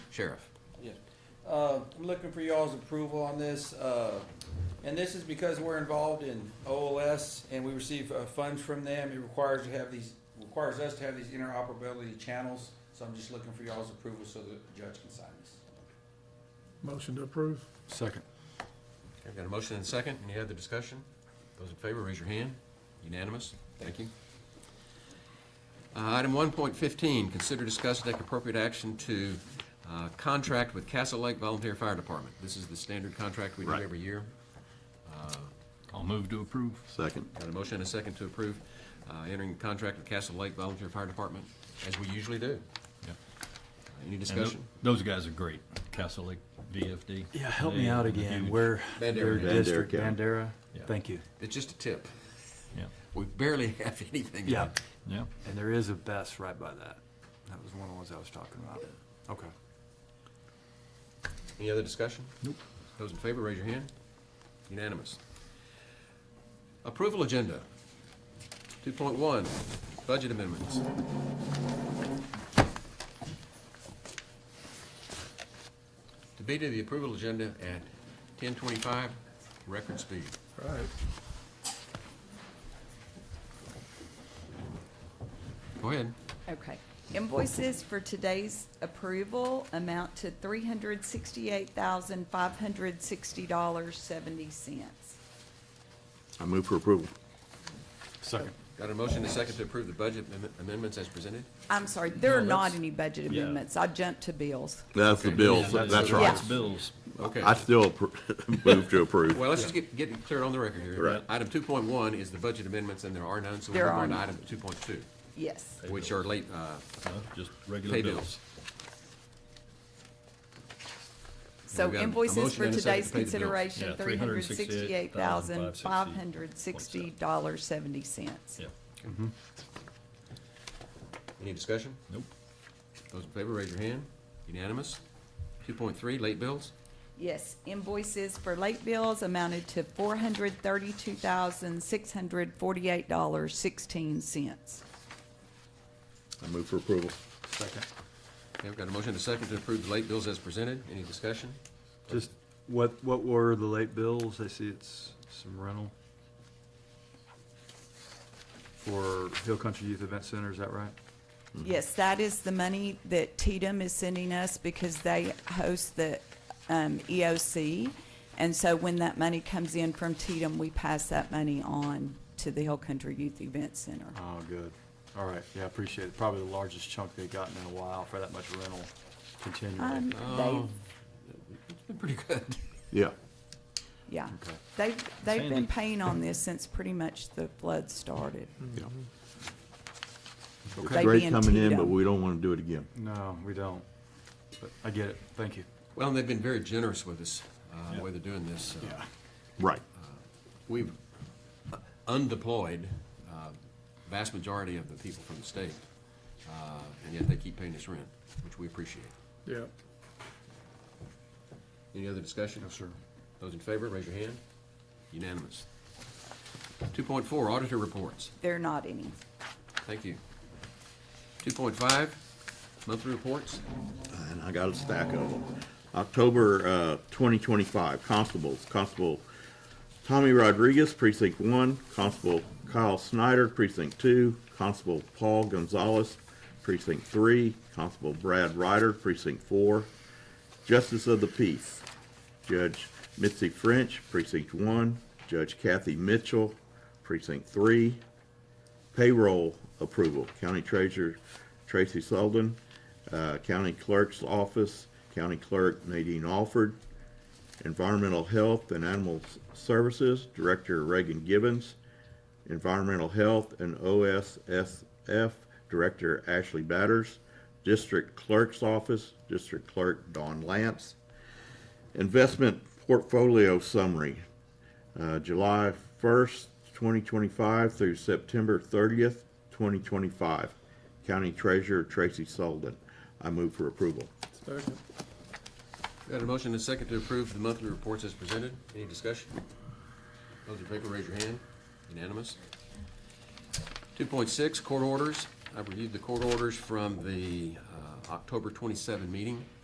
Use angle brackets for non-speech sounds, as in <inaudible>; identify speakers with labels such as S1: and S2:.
S1: Sheriff.
S2: Yes. Uh, I'm looking for y'all's approval on this, uh, and this is because we're involved in OLS and we receive uh, funds from them. It requires to have these, requires us to have these interoperability channels, so I'm just looking for y'all's approval so the judge can sign this.
S3: Motion to approve.
S4: Second.
S1: I've got a motion and a second. Any other discussion? Those in favor, raise your hand. Unanimous? Thank you. Uh, Item 1.15, consider discuss and take appropriate action to uh, contract with Castle Lake Volunteer Fire Department. This is the standard contract we do
S4: Right.
S1: every year.
S4: I'll move to approve. Second.
S1: Got a motion and a second to approve uh, entering contract with Castle Lake Volunteer Fire Department, as we usually do.
S4: Yep.
S1: Uh, Any
S4: And tho-
S1: discussion?
S4: Those guys are great. Castle Lake VFD.
S5: Yeah, help
S4: They
S5: me out
S4: are
S5: again.
S4: huge.
S5: Where
S1: Bandera.
S5: their
S1: Bandera
S5: district,
S6: County.
S5: Bandera.
S4: Yeah.
S5: Thank you.
S1: It's just a tip.
S4: Yeah,
S1: We barely <laughs> have anything.
S5: Yeah,
S4: yeah.
S5: and there is a best right by that. That was one of the ones I was talking about. Okay.
S1: Any other discussion?
S4: Nope.
S1: Those in favor, raise your hand. Unanimous. Approval agenda. Two point one, budget amendments. To be to the approval agenda at ten twenty-five, record speed.
S3: All right.
S1: Go ahead.
S7: Okay. Invoices for today's approval amount to three hundred sixty-eight thousand, five hundred sixty dollars, seventy cents.
S6: I move for approval.
S4: Second.
S1: Got a motion and a second to approve the budget amendment- amendments as presented?
S7: I'm sorry, there are
S4: No,
S7: not
S4: that's-
S7: any budget
S4: yeah.
S7: amendments. I jumped to bills.
S6: That's the
S1: Okay.
S6: bill,
S1: Yeah,
S6: that's right.
S4: It's bills.
S1: Okay.
S6: I still appro- <laughs> move to approve.
S1: Well, let's just get, get it clear on the record here.
S6: Right.
S1: Item two point one is the budget amendments, and there are none, so we
S7: There
S1: move
S7: are
S1: on to
S7: none.
S1: item two point two,
S7: Yes.
S1: which are late, uh,
S4: No, Just
S1: Pay
S4: regular
S1: bills.
S4: bills.
S7: So
S1: We've got a
S7: invoices
S1: motion
S7: for
S1: and a second
S7: today's
S1: to pay the bills.
S7: consideration,
S4: Yeah,
S7: three hundred sixty-eight thousand, five hundred sixty dollars, seventy cents.
S4: Yeah,
S1: Any discussion?
S4: nope.
S1: Those in favor, raise your hand. Unanimous. Two point three, late bills.
S7: Yes, invoices for late bills amounted to four hundred thirty-two thousand, six hundred forty-eight dollars, sixteen cents.
S6: I move for approval.
S5: Second.
S1: Okay, I've got a motion and a second to approve the late bills as presented. Any discussion?
S5: Just what, what were the late bills? I see it's some rental for Hill Country Youth Event Center, is that right?
S7: Yes, that is the money that Tatum is sending us because they host the um, EOC. And so when that money comes in from Tatum, we pass that money on to the Hill Country Youth Event Center.
S5: Oh, good. All right, yeah, I appreciate it. Probably the largest chunk they've gotten in a while for that much rental
S7: Um,
S5: continually.
S7: They've,
S1: It's been pretty good.
S6: Yeah.
S7: yeah,
S5: Okay.
S7: they've, they've
S4: Sandy.
S7: been paying on this since pretty much the flood started.
S6: yeah.
S7: They
S6: It's great
S7: being
S6: coming in,
S7: Tito.
S6: but we don't want to do it again.
S5: No, we don't. But I get it. Thank you.
S1: Well, and they've been very generous with us, uh, the
S4: Yeah.
S1: way they're doing this. Uh,
S6: Right.
S1: We've undeployed, uh, vast majority of the people from the state, uh, and yet they keep paying us rent, which we appreciate.
S3: Yeah.
S1: Any other discussion?
S5: No, sir.
S1: Those in favor, raise your hand. Unanimous. Two point four, auditor reports.
S7: They're not any.
S1: Thank you. Two point five, monthly reports.
S6: And I got a stack of them. October, uh, twenty twenty-five, constables, Constable Tommy Rodriguez, precinct one, Constable Kyle Snyder, precinct two, Constable Paul Gonzalez, precinct three, Constable Brad Ryder, precinct four, Justice of the Peace, Judge Mitzi French, precinct one, Judge Kathy Mitchell, precinct three, payroll approval, County Treasurer Tracy Sullivan, uh, County Clerk's Office, County Clerk Nadine Alford, Environmental Health and Animal Services, Director Reagan Gibbons, Environmental Health and OSSF, Director Ashley Batters, District Clerk's Office, District Clerk Don Lance. Investment Portfolio Summary, uh, July 1st, 2025 through September 30th, 2025. County Treasurer Tracy Sullivan. I move for approval.
S3: Second.
S1: Got a motion and a second to approve the monthly reports as presented. Any discussion? Those in favor, raise your hand. Unanimous. Two point six, court orders. I reviewed the court orders from the uh, October twenty-seven meeting.